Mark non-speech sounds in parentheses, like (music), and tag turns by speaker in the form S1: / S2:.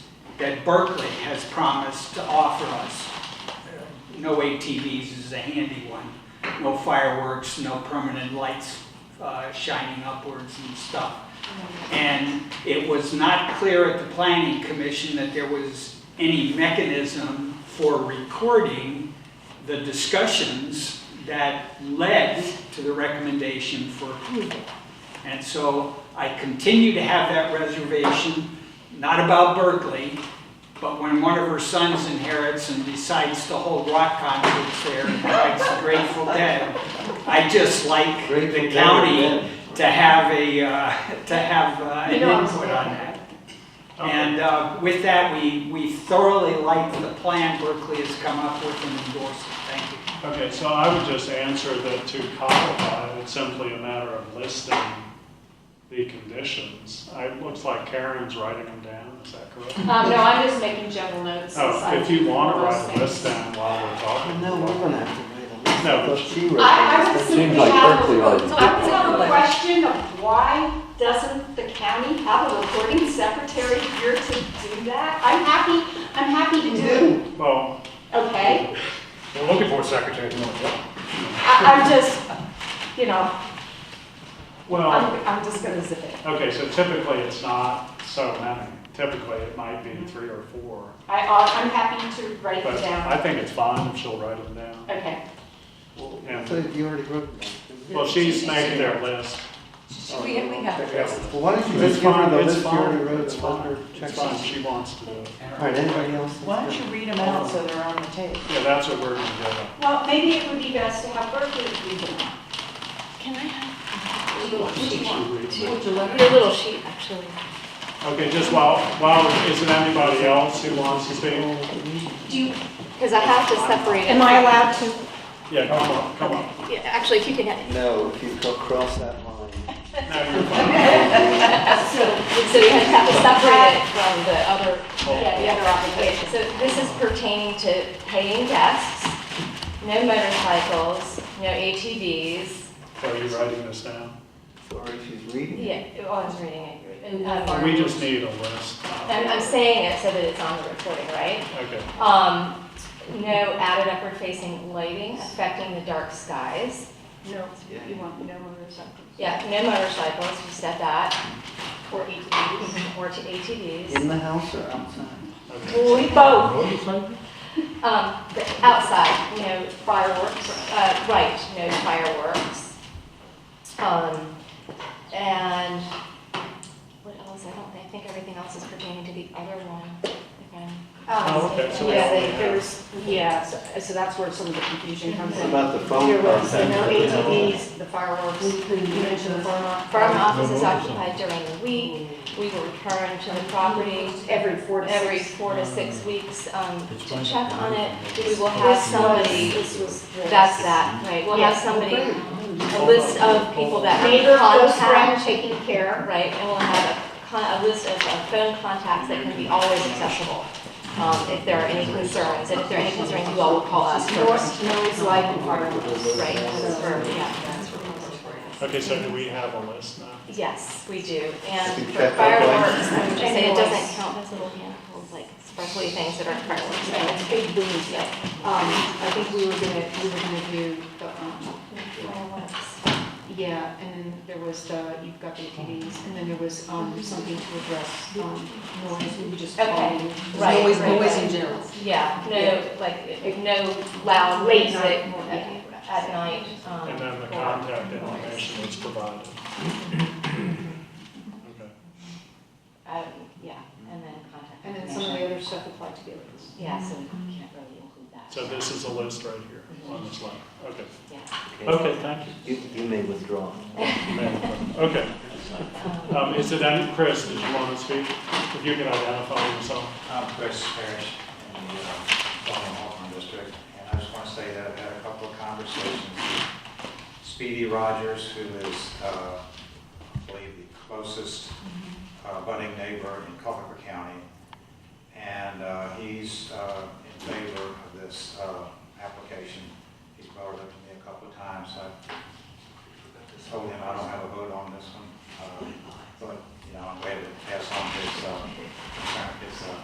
S1: that Berkeley has promised to offer us. Uh, No ATVs is a handy one, no fireworks, no permanent lights uh, shining upwards and stuff. And it was not clear at the planning commission that there was any mechanism for recording the discussions that led to the recommendation for approval. And so I continue to have that reservation, not about Berkeley, but when one of her sons inherits and decides to hold rock concerts there and writes the Grateful Dead, I just like
S2: Grateful
S1: the
S2: Dead,
S1: county
S2: yeah.
S1: to have a, uh, to have uh, an
S3: You know I'm
S1: input on that.
S4: Okay.
S1: And uh, with that, we, we thoroughly like the plan Berkeley has come up with and endorsed it. Thank you.
S4: Okay, so I would just answer that to codify, it's simply a matter of listing the conditions. I, it looks like Karen's writing them down, is that correct?
S3: Um, no, I'm just making general notes.
S4: Oh, if you want to
S3: Those
S4: write a
S3: things.
S4: list down while we're talking.
S2: No, we're gonna have to wait a minute.
S4: No, but-
S2: But she wrote
S3: I, I would
S2: this.
S3: simply
S5: Seems like
S3: have,
S5: Berkeley already
S3: so I would
S5: did
S3: have a
S5: that.
S3: question of why doesn't the county have a recording secretary here to do that? I'm happy, I'm happy to do it,
S4: Well,
S3: okay?
S6: We're looking for a secretary.
S3: I, I'm just, you know,
S4: well,
S3: I'm, I'm just gonna zip it.
S4: okay, so typically it's not so many. Typically, it might be three or four.
S3: I, uh, I'm happy to write
S4: But
S3: it
S4: I
S3: down.
S4: think it's fine if she'll write them down.
S3: Okay,
S4: Yeah.
S2: So you already wrote that.
S4: Well, she's making their list. Oh.
S7: We have, we have.
S2: Well, why don't you
S4: It's
S2: just give her
S4: fine,
S2: the
S4: it's
S2: list you
S4: fine,
S2: already wrote
S4: it's
S2: and let
S4: fine.
S2: her
S4: It's
S2: check
S4: fine,
S2: off?
S4: she wants to do it.
S2: All right, anybody else?
S7: Why don't you read them out so they're on the tape?
S4: Yeah, that's what we're gonna do.
S3: well, maybe it would be best to have Berkeley do that.
S8: Can I have
S4: Okay,
S7: Would you let
S8: your little sheet, actually?
S4: just while, while, is there anybody else who wants to speak?
S8: Do you, because I have to separate it.
S3: Am I allowed to
S4: Yeah, come on, come on.
S8: Yeah, Actually, if you can, have-
S2: No, if you go cross that
S7: (laughs)
S2: line.
S4: No, you're fine.
S8: so you have to separate it. Oh.
S7: from the other?
S8: Yeah, the other application. So this is pertaining to paying guests, no motorcycles, no ATVs.
S4: Are you writing this down?
S2: Or if she's reading.
S8: Yeah, oh, I was reading it. Um,
S4: We just need a list.
S8: I'm, I'm saying it so that it's on the recording, right?
S4: Okay,
S8: Um, no added upward facing lighting affecting the dark skies.
S3: No, you want no motorcycles.
S8: Yeah, no motorcycles, you said that. Or ATVs. Or to ATVs.
S2: In the house or outside?
S4: okay.
S8: Well, we both. Um, but outside, you know, fireworks, uh, right, no fireworks. Um, and what else? I don't, I think everything else is pertaining to the other one. if I'm-
S3: Oh,
S4: Oh, okay, so we
S3: Yeah,
S4: already
S3: they-
S4: have-
S3: there's, yeah, so- so that's where some of the confusion comes
S2: What
S3: in.
S2: about the phone
S3: There was
S2: contact?
S3: the no ATVs, the fireworks, you mentioned the farm off-
S8: Farm office is occupied during the week. We will return to the property
S3: every four to six.
S8: every four to six weeks, um,
S5: Uh, It's
S8: to
S5: fine.
S8: check on it. We will have
S3: This was,
S8: somebody
S3: this was the.
S8: That's that, right, we'll have
S3: Yeah.
S8: somebody, a list of people that
S3: Neighbor,
S8: have
S3: close friend,
S8: contact,
S3: taking care.
S8: right, and we'll have a con, a list of uh, phone contacts that can be always accessible, um, if there are any concerns, and if there are any concerns, you all will call us first.
S3: Noise, noise, light, and fireworks.
S8: Right, that's for, yeah, that's for concerns.
S4: Okay, so do we have a list now?
S8: Yes, we do, and
S2: Can you
S8: for
S2: check that one?
S8: fireworks, I would just say it
S3: Anyways.
S8: doesn't count as little handfuls, like sparkly things that aren't fireworks, right?
S3: Yeah, Big booms, yeah. Um, I think we were gonna, we were gonna do, the, um,
S8: Fireworks.
S3: yeah, and then there was the, you've got the ATVs, and then there was, um, something to address, um, noise, we just.
S8: Okay,
S3: called-
S8: right,
S7: Always,
S8: right,
S7: always
S8: right.
S7: in general.
S8: Yeah, no, like, no loud
S3: Late
S8: music
S3: night.
S8: at at night. um,
S4: And then the
S8: or-
S4: contact information is provided. Okay.
S8: Um, yeah, and then contact.
S3: And then some of the
S8: information.
S3: other stuff applied to the others.
S8: Yeah, so we can't really include that.
S4: So this is a list right here on this line. Okay,
S8: Yeah.
S4: okay, thank you.
S2: You, you may withdraw.
S4: Okay. Um, is it any, Chris, did you want to speak? If you can identify yourself.
S9: I'm Chris Parrish in the uh, Bellingham Hawthorne District, and I just want to say that I've had a couple of conversations with Speedy Rogers, who is, uh, I believe, the closest uh, budding neighbor in Culpeper County, and uh, he's uh, in favor of this uh, application. He's brought it up to me a couple of times. I told him I don't Uh, uh,